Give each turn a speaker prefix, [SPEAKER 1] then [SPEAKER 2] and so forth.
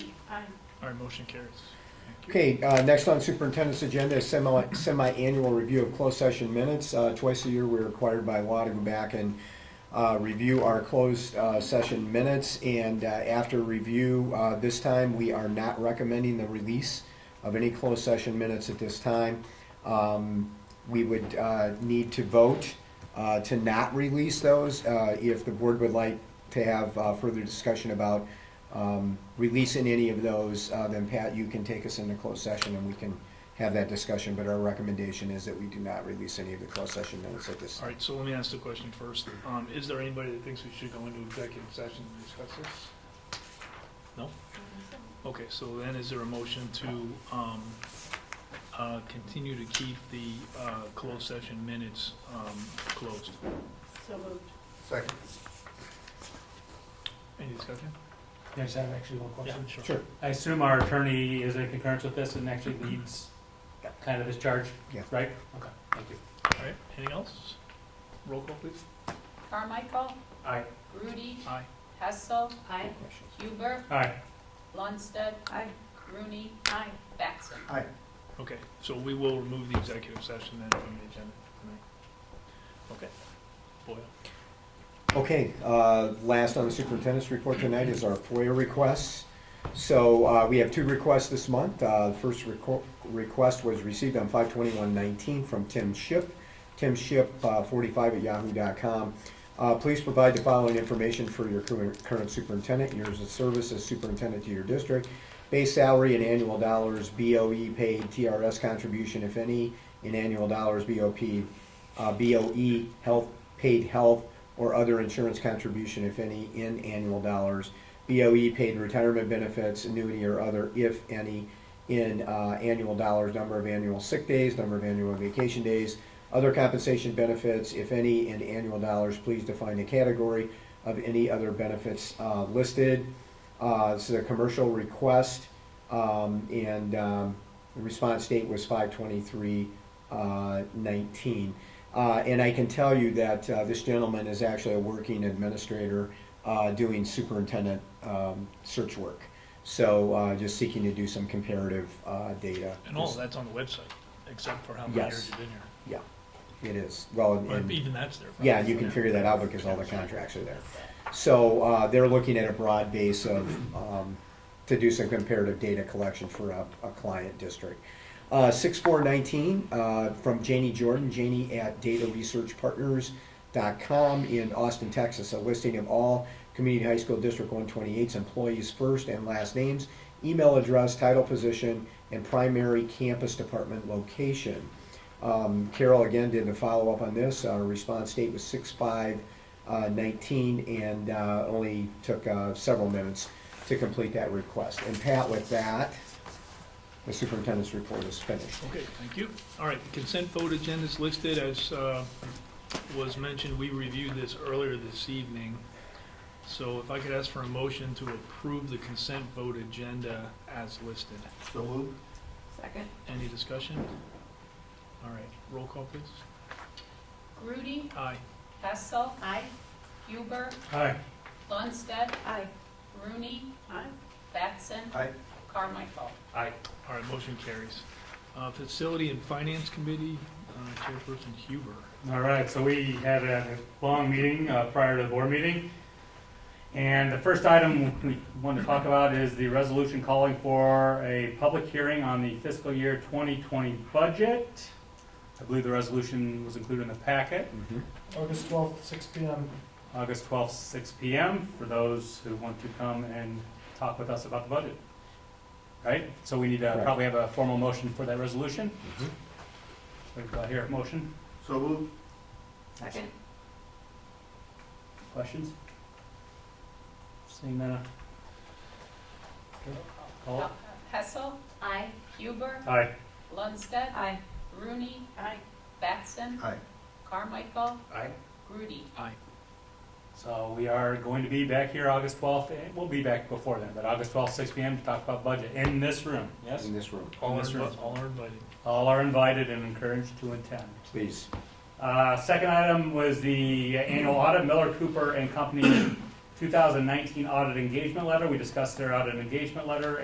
[SPEAKER 1] Aye.
[SPEAKER 2] All right, motion carries.
[SPEAKER 3] Okay, uh, next on superintendent's agenda is semi, semi-annual review of closed session minutes. Uh, twice a year, we're required by law to go back and, uh, review our closed, uh, session minutes. And, uh, after review, uh, this time, we are not recommending the release of any closed session minutes at this time. Um, we would, uh, need to vote, uh, to not release those, uh, if the board would like to have, uh, further discussion about, um, releasing any of those, uh, then Pat, you can take us into closed session and we can have that discussion, but our recommendation is that we do not release any of the closed session minutes at this
[SPEAKER 2] All
[SPEAKER 3] time.
[SPEAKER 2] right, so let me ask the question first. Um, is there anybody that thinks we should go into executive session and discuss this? No? Okay, so then is there a motion to, um, uh, continue to keep the, uh, closed session minutes, um, closed?
[SPEAKER 1] So moved.
[SPEAKER 3] Second.
[SPEAKER 2] Any discussion?
[SPEAKER 4] Can I just have actually one question?
[SPEAKER 3] Sure,
[SPEAKER 4] I assume our attorney is in concurrence with this and actually leads
[SPEAKER 3] Yeah.
[SPEAKER 4] kind of this charge,
[SPEAKER 3] Yeah.
[SPEAKER 4] right? Okay, thank you.
[SPEAKER 2] All right, anything else? Roll call, please.
[SPEAKER 5] Carmichael,
[SPEAKER 4] Aye.
[SPEAKER 5] Rudy,
[SPEAKER 2] Aye.
[SPEAKER 5] Hessel,
[SPEAKER 1] Aye.
[SPEAKER 3] questions?
[SPEAKER 5] Huber,
[SPEAKER 4] Aye.
[SPEAKER 5] Lundstedt,
[SPEAKER 1] Aye.
[SPEAKER 5] Rooney,
[SPEAKER 1] Aye.
[SPEAKER 5] Batson.
[SPEAKER 2] Okay, so we will remove the executive session then from the agenda tonight. Okay. Boyle?
[SPEAKER 3] Okay, uh, last on the superintendent's report tonight is our FOIA requests. So uh, we have two requests this month. Uh, The first reco- request was received on 5/21/19 from Tim Ship, timship45 at yahoo.com. Uh, Please provide the following information for your cur- current superintendent, years of service as superintendent to your district, base salary in annual dollars, BOE paid, TRS contribution, if any, in annual dollars, BOP, uh, BOE, health, paid health, or other insurance contribution, if any, in annual dollars. BOE paid retirement benefits, annuity or other, if any, in uh, annual dollars, number of annual sick days, number of annual vacation days, other compensation benefits, if any, in annual dollars. Please define the category of any other benefits uh, listed. Uh, This is a commercial request, um, and um, the response date was 5/23/19. Uh, And I can tell you that uh, this gentleman is actually a working administrator uh, doing superintendent um, search work. So uh, just seeking to do some comparative uh, data.
[SPEAKER 2] And all of that's on the website, except for how many
[SPEAKER 3] Yes.
[SPEAKER 2] years you've been here.
[SPEAKER 3] Yeah, it is. Well, and-
[SPEAKER 2] But even that's there. probably.
[SPEAKER 3] yeah, you can figure that out because all the contracts are there. So uh, they're looking at a broad base of, um, to do some comparative data collection for a, a client district. Uh, six four nineteen, uh, from Janie Jordan, Janie at dataresearchpartners.com in Austin, Texas, a listing of all community high school District one twenty-eight's employees' first and last names, email address, title, position, and primary campus department location. Um, Carol again did a follow-up on this. Our response date was six five uh, nineteen and uh, only took uh, several minutes to complete that request. And Pat, with that, the superintendent's report is finished.
[SPEAKER 2] Okay, thank you. All right, the consent vote agenda is listed as uh, was mentioned. We reviewed this earlier this evening. So if I could ask for a motion to approve the consent vote agenda as listed.
[SPEAKER 1] Second.
[SPEAKER 2] Any discussion? All right, roll call, please.
[SPEAKER 5] Rudy,
[SPEAKER 2] Aye.
[SPEAKER 5] Hessel,
[SPEAKER 1] Aye.
[SPEAKER 5] Huber,
[SPEAKER 4] Aye.
[SPEAKER 5] Lundstedt,
[SPEAKER 1] Aye.
[SPEAKER 5] Rooney,
[SPEAKER 1] Aye.
[SPEAKER 5] Batson.
[SPEAKER 3] Aye.
[SPEAKER 5] Carmichael.
[SPEAKER 4] Aye.
[SPEAKER 2] All right, motion carries. Uh, Facility and Finance Committee, uh, Chairperson Huber.
[SPEAKER 4] All right, so we had a long meeting uh, prior to the board meeting. And the first item we want to talk about is the resolution calling for a public hearing on the fiscal year 2020 budget. I believe the resolution was included in the packet.
[SPEAKER 3] Mm-hmm.
[SPEAKER 6] August twelfth, six P M.
[SPEAKER 4] August 12th, 6 PM, for those who want to come and talk with us about the budget. Right? So we need to
[SPEAKER 3] Correct.
[SPEAKER 4] probably have a formal motion for that resolution. So do I hear a motion?
[SPEAKER 6] So moved.
[SPEAKER 1] Second.
[SPEAKER 4] Questions? Seeing none. uh, okay, Call it.
[SPEAKER 5] Hessel,
[SPEAKER 1] Aye.
[SPEAKER 5] Huber,
[SPEAKER 4] Aye.
[SPEAKER 5] Lundstedt,
[SPEAKER 1] Aye.
[SPEAKER 5] Rooney,
[SPEAKER 1] Aye.
[SPEAKER 5] Batson.
[SPEAKER 6] Aye.
[SPEAKER 5] Carmichael,
[SPEAKER 4] Aye.
[SPEAKER 5] Rudy.
[SPEAKER 4] So we are going to be back here August 12th, and we'll be back before then, but August 12th, 6 PM to talk about budget in this room, yes?
[SPEAKER 3] In this room,
[SPEAKER 2] All are
[SPEAKER 4] Mr.
[SPEAKER 2] invi- all are invited.
[SPEAKER 4] All are invited and encouraged to attend.
[SPEAKER 3] please.
[SPEAKER 4] Uh, Second item was the annual audit, Miller Cooper and Company 2019 audit engagement letter. We discussed their audit engagement letter